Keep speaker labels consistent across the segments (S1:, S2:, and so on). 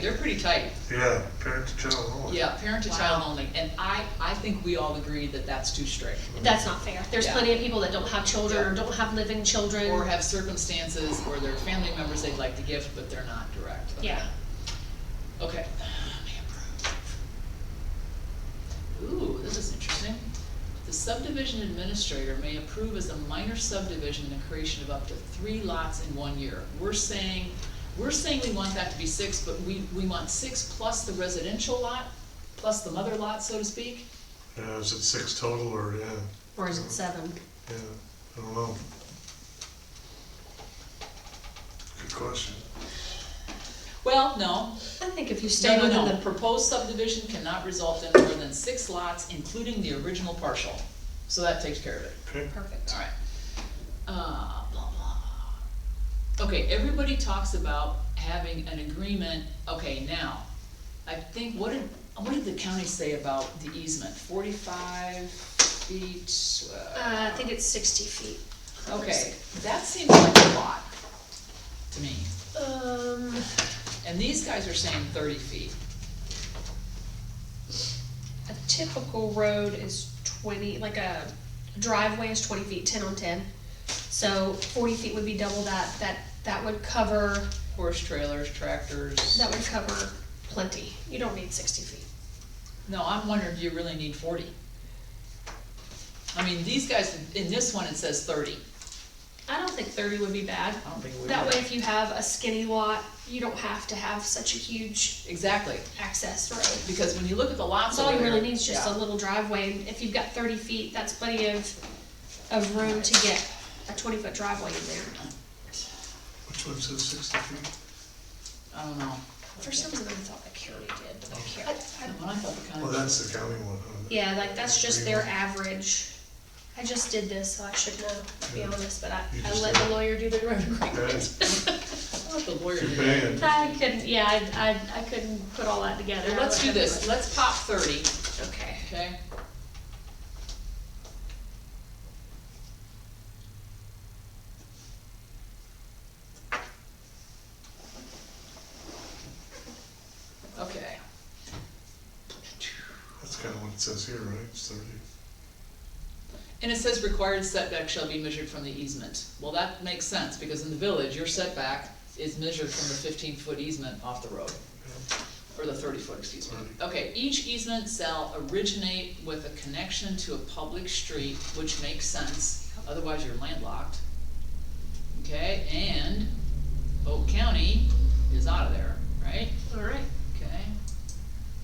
S1: they're pretty tight.
S2: Yeah, parent to child oh, only.
S1: Yeah, parent to child
S3: Wow.
S1: only, and I, I think we all agree that that's too strict.
S3: That's not fair. There's
S1: Yeah.
S3: plenty of people that don't have children or don't have living children.
S1: Or have circumstances or their family members they'd like to gift, but they're not direct. Okay.
S3: Yeah.
S1: Okay. May approve. Ooh, this is interesting. The subdivision administrator may approve as a minor subdivision the creation of up to three lots in one year. We're saying, we're saying we want that to be six, but we, we want six plus the residential lot, plus the mother lot, so to speak?
S2: Yeah, is it six total or, yeah,
S3: Or is it seven?
S2: yeah, I don't know. Good question.
S1: Well, no,
S3: I think if you stay
S1: No, no,
S3: within
S1: no,
S3: the,
S1: proposed subdivision cannot result in more than six lots, including the original partial. So that takes care of it,
S2: Okay,
S3: perfect.
S1: alright. Uh, blah, blah. Okay, everybody talks about having an agreement, okay, now, I think, what did, what did the county say about the easement? Forty-five feet?
S3: Uh, I think it's sixty feet.
S1: Okay, that seems like a lot to me,
S3: Um,
S1: and these guys are saying thirty feet.
S3: a typical road is twenty, like a driveway is twenty feet, ten on ten. So forty feet would be double that, that, that would cover,
S1: Horse trailers, tractors.
S3: that would cover plenty. You don't need sixty feet.
S1: No, I'm wondering, do you really need forty? I mean, these guys, in this one, it says thirty.
S3: I don't think thirty would be bad.
S1: I don't think we would.
S3: That way, if you have a skinny lot, you don't have to have such a huge
S1: Exactly,
S3: access road.
S1: because when you look at the lots
S3: That's all
S1: over
S3: you
S1: there.
S3: really need is just a
S1: yeah.
S3: little driveway. If you've got thirty feet, that's plenty of, of room to get a twenty foot driveway in there.
S2: which one says sixty feet?
S1: I don't know.
S3: For some reason, I thought the county did, but I
S1: The
S3: can't.
S1: one I thought the county.
S2: Well, that's the county one, huh?
S3: Yeah, like, that's just their average. I just did this, so I should know, to be
S2: Yeah.
S3: honest, but I,
S2: You
S3: I
S2: just
S3: let
S2: did it.
S3: the lawyer do the road agreement.
S2: Yeah,
S1: I thought the lawyer.
S2: Too
S1: did.
S2: bad.
S3: I couldn't, yeah, I, I, I couldn't put all that together.
S1: Well, Let's do this, let's pop thirty,
S3: Okay.
S1: okay? Okay.
S2: that's kinda what it says here, right, it's thirty.
S1: And it says required setback shall be measured from the easement. Well, that makes sense, because in the village, your setback is measured from the fifteen-foot easement off the road, or the thirty-foot, excuse me. Okay, each easement shall originate with a connection to a public street, which makes sense, otherwise you're landlocked. Okay, and Oak County is out of there, right?
S3: All right.
S1: Okay,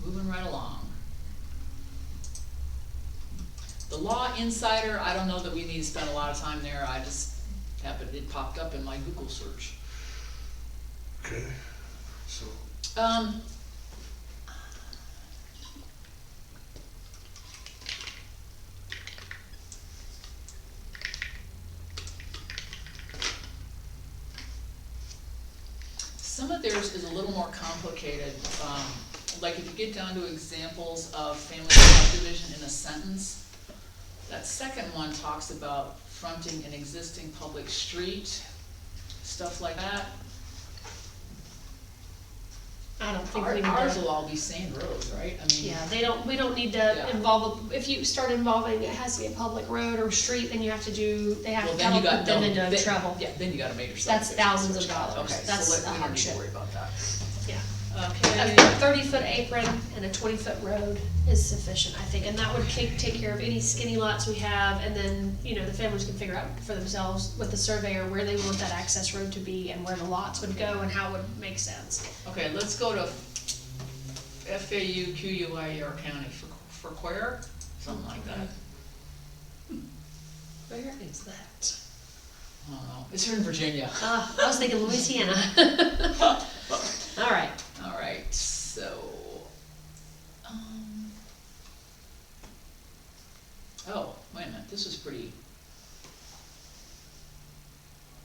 S1: moving right along. The law insider, I don't know that we need to spend a lot of time there, I just happened, it popped up in my Google search.
S2: Okay, so,
S1: Um. Some of theirs is a little more complicated, um, like if you get down to examples of family subdivision in a sentence, that second one talks about fronting an existing public street, stuff like that.
S3: I don't think we
S1: Our-
S3: need
S1: Ours
S3: to.
S1: will all be sand roads, right? I mean,
S3: Yeah, they don't, we don't need
S1: Yeah.
S3: to involve, if you start involving, it has to be a public road or street, then you have to do, they have
S1: well,
S3: to
S1: then
S3: come
S1: you
S3: up
S1: got, no,
S3: them into
S1: then-
S3: trouble.
S1: yeah, then you got a major subdivision.
S3: That's thousands of dollars.
S1: Okay,
S3: That's
S1: so let,
S3: a
S1: we don't need
S3: hardship.
S1: to worry about that.
S3: Yeah. A
S1: Okay,
S3: thirty foot apron and a twenty foot road is sufficient, I think, and that would take, take care of any skinny lots we have, and then, you know, the families can figure out for themselves with the surveyor where they want that access road to be and where the lots would go and how it would make sense.
S1: okay, let's go to FAU QUIR E County for, for Quare, something like that.
S3: Where is that?
S1: I don't know, it's here in Virginia.
S3: Uh, I was thinking Louisiana. All right,
S1: All right, so, um, oh, wait a minute, this is pretty.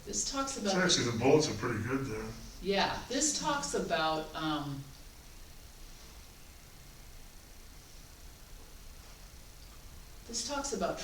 S1: This talks
S2: it's
S1: about. the-
S2: actually, the bullets are pretty good there.
S1: Yeah, this talks about, um. This talks about